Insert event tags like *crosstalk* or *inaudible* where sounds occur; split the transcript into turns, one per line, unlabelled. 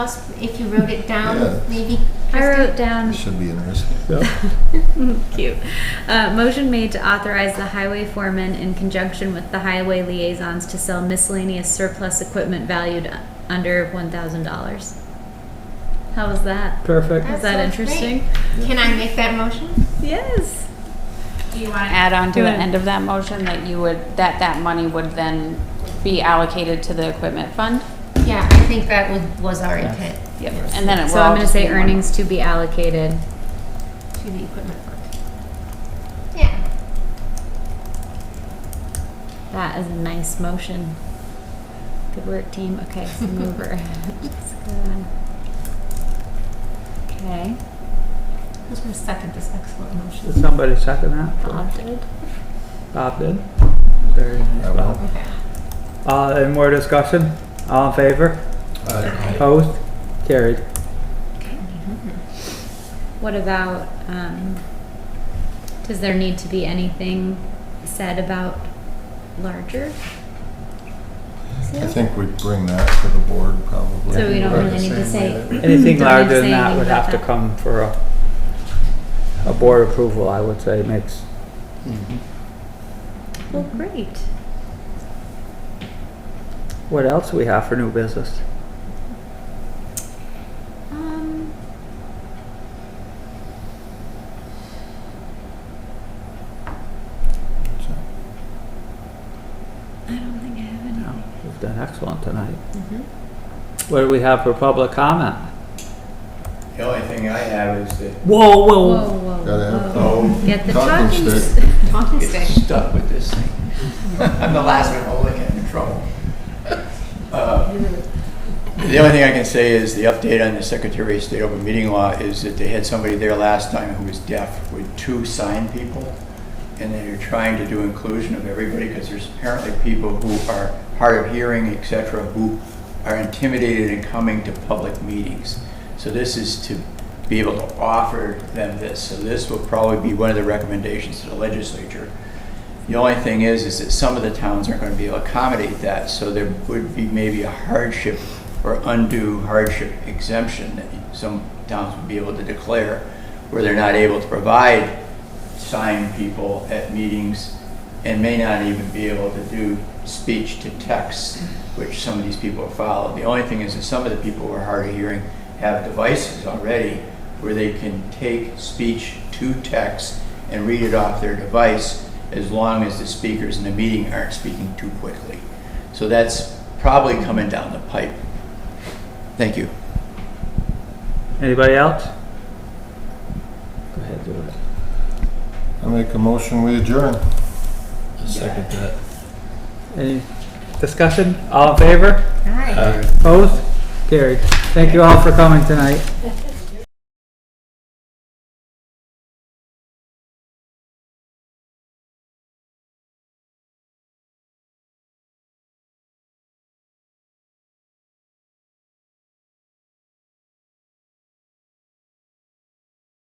else if you wrote it
Yeah.
down, maybe?
I
Kristen?
wrote down
This should be interesting.
*laughs* cute. Uh, motion made to authorize the highway foreman in conjunction with the highway liaisons to sell miscellaneous surplus equipment valued u- under one thousand dollars. How was that?
Perfect.
Was that
sounds great.
interesting?
Can I make that motion?
Yes.
Do you want to add on to
Go
the
ahead.
end of that motion that you would, that that money would then be allocated to the equipment fund?
Yeah, I think that was, was our intent
Yep. And then it will.
So I'm
all
gonna
just
say
be one-
earnings to be allocated.
to the equipment fund. Yeah,
That is a nice motion. Good work, team. Okay, so mover. *laughs* Jessica. Okay,
who's gonna second this excellent motion?
Did somebody second that?
Bob did.
Bob did. Very nice,
I will.
Bob.
Okay.
Uh, any more discussion? All in favor? Opposed? Carried.
Mm-hmm. What about, um, does there need to be anything said about larger?
I think we'd bring that to the board probably.
So we don't
Right,
really
the
need
same
to say-
way that we-
Don't need
Anything
to
larger
say
than that
anything
would
about
have to
that.
come for a, a board approval, I would say, makes,
Well, great.
what else we have for new business?
Um, I don't think I have any.
No, We've done excellent tonight.
Mm-hmm.
What do we have for public comment?
The only thing I have is that
Whoa,
Whoa,
whoa.
whoa,
Gotta have
whoa.
oh,
Get the
Talking
talking.
stick.
s-
Talking stick.
it's stuck with this thing. *laughs* I'm the last one holding it in trouble. Uh, The only thing I can say is the update on the Secretary of State open meeting law is that they had somebody there last time who was deaf with two sign people. And they're trying to do inclusion of everybody because there's apparently people who are hard of hearing, et cetera, who are intimidated in coming to public meetings. So this is to be able to offer them this. So this will probably be one of the recommendations to the legislature. The only thing is, is that some of the towns aren't going to be able to accommodate that, so there would be maybe a hardship or undue hardship exemption that some towns would be able to declare, where they're not able to provide sign people at meetings and may not even be able to do speech to text, which some of these people follow. The only thing is that some of the people who are hard of hearing have devices already where they can take speech to text and read it off their device as long as the speakers in the meeting aren't speaking too quickly. So that's probably coming down the pipe. Thank you.
Anybody else? Go ahead, do it.
I make a motion, we adjourn.
Second that.
Any discussion? All in favor?
All right.
Opposed? Carried. Thank you all for coming tonight.